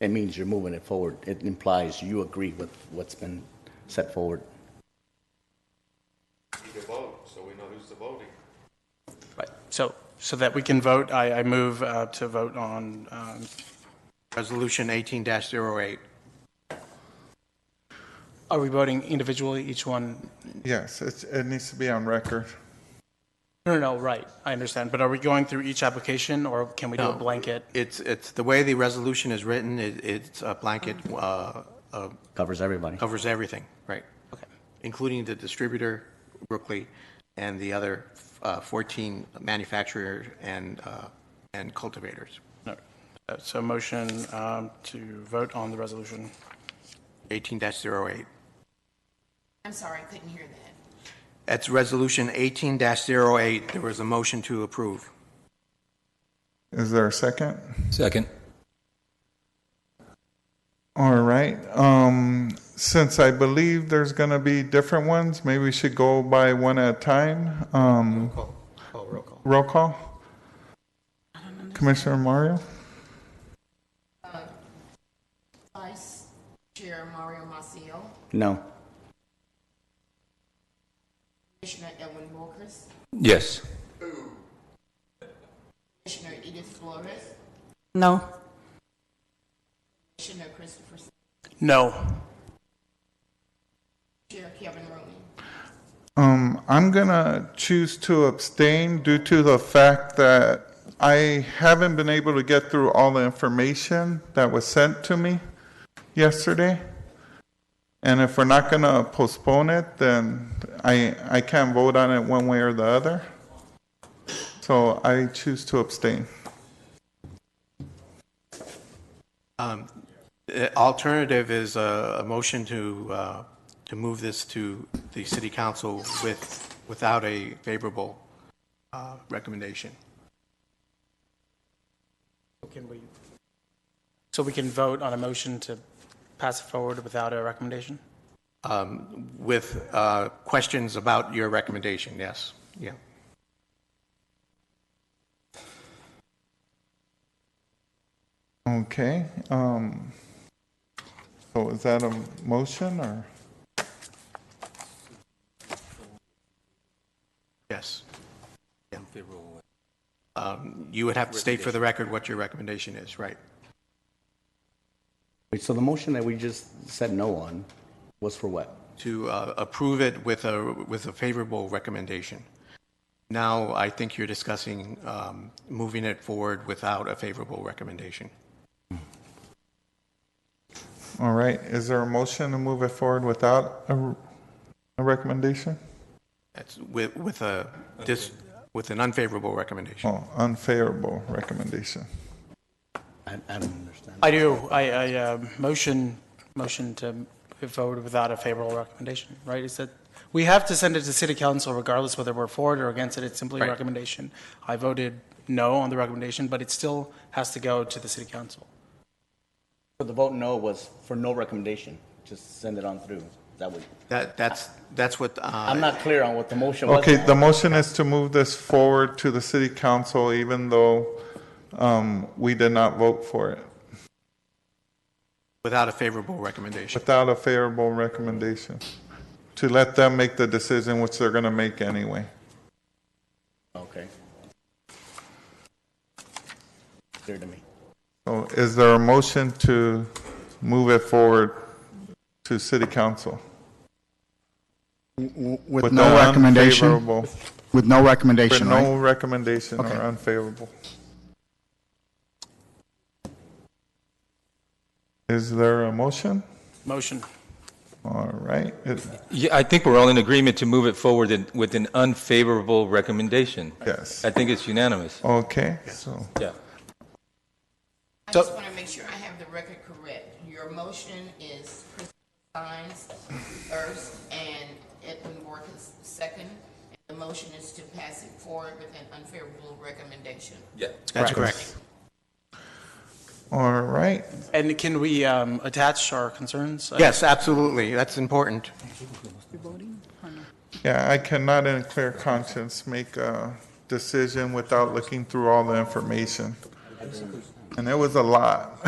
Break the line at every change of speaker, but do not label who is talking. It means you're moving it forward. It implies you agree with what's been set forward.
We can vote, so we know who's voting.
Right, so, so that we can vote, I, I move uh, to vote on, um,
Resolution 18-08.
are we voting individually, each one?
Yes, it, it needs to be on record.
No, no, no, right, I understand, but are we going through each application, or can we do a
No.
blanket?
It's, it's, the way the resolution is written, it- it's a blanket, uh, uh,
Covers everybody.
covers everything, right?
Okay.
Including the distributor, Brookley, and the other uh, 14 manufacturers and, uh, and cultivators.
No. Uh, So motion um, to vote on the resolution.
18-08.
I'm sorry, I couldn't hear that.
That's Resolution 18-08. There was a motion to approve.
Is there a second?
Second.
All right. Um, since I believe there's going to be different ones, maybe we should go by one at a time. Um,
Call, roll call.
roll call. Commissioner Mario?
Vice Chair Mario Maciel,
No.
Commissioner Edwin Wilkers,
Yes.
Commissioner Edith Flores,
No.
Commissioner Christopher, S-
No.
Chair Kevin Rooney,
Um, I'm gonna choose to abstain due to the fact that I haven't been able to get through all the information that was sent to me yesterday. And if we're not gonna postpone it, then I, I can't vote on it one way or the other. So I choose to abstain.
The Uh, Alternative is a, a motion to, uh, to move this to the city council with, without a favorable uh, recommendation.
Can we? So we can vote on a motion to pass it forward without a recommendation?
Um, With uh, questions about your recommendation, yes, yeah.
Okay, um, so is that a motion or?
Yes. Yeah. Um, You would have to state for the record what your recommendation is, right?
Wait, so the motion that we just said no on was for what?
To uh, approve it with a, with a favorable recommendation. Now, I think you're discussing um, moving it forward without a favorable recommendation.
All right, is there a motion to move it forward without a, a recommendation?
That's with, with a, dis with an unfavorable recommendation.
Oh, unfavorable recommendation.
I, I don't understand.
I do, I, I, uh, motion, motion to move forward without a favorable recommendation, right? Is that, we have to send it to city council regardless whether we're for it or against it, it's simply a
Right.
recommendation. I voted no on the recommendation, but it still has to go to the city council.
So the vote no was for no recommendation, just send it on through. That would,
That, that's, that's what,
I'm
uh,
not clear on what the motion was.
Okay,
now.
the motion is to move this forward to the city council even though um, we did not vote for it,
without a favorable recommendation.
without a favorable recommendation, to let them make the decision which they're going to make anyway.
Okay. Clear to me.
So is there a motion to move it forward to city council?
With
With
no
the
recommendation?
unfavorable-
With no
With
recommendation, right?
no recommendation or
Okay.
unfavorable. Is there a motion?
Motion.
All right, it-
Yeah, I think we're all in agreement to move it forward in- with an unfavorable recommendation.
yes,
I think it's unanimous.
okay, so,
Yeah.
I
So-
just want to make sure I have the record correct. Your motion is Christopher Sines, Ernst, and Edwin Wilkers, second. The motion is to pass it forward with an unfavorable recommendation.
Yeah.
That's correct.
all right,
And can we um, attach our concerns?
Yes, absolutely, that's important.
yeah, I cannot in clear conscience make a decision without looking through all the information. And it was a lot.